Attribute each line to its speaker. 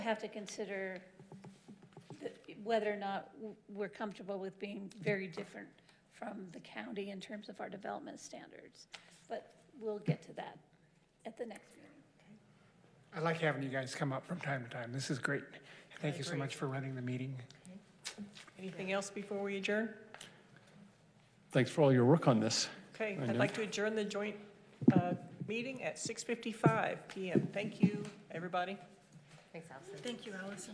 Speaker 1: have to consider the- whether or not w- we're comfortable with being very different from the county in terms of our development standards. But we'll get to that at the next meeting.
Speaker 2: I like having you guys come up from time to time. This is great. Thank you so
Speaker 3: agree.
Speaker 2: much for running the meeting.
Speaker 3: Anything else before we adjourn?
Speaker 4: Thanks for all your work on this.
Speaker 3: Okay,
Speaker 4: I
Speaker 3: I'd
Speaker 4: know.
Speaker 3: like to adjourn the joint uh, meeting at 6:55 PM. Thank you, everybody.
Speaker 5: Thanks, Allison.
Speaker 6: Thank you, Allison.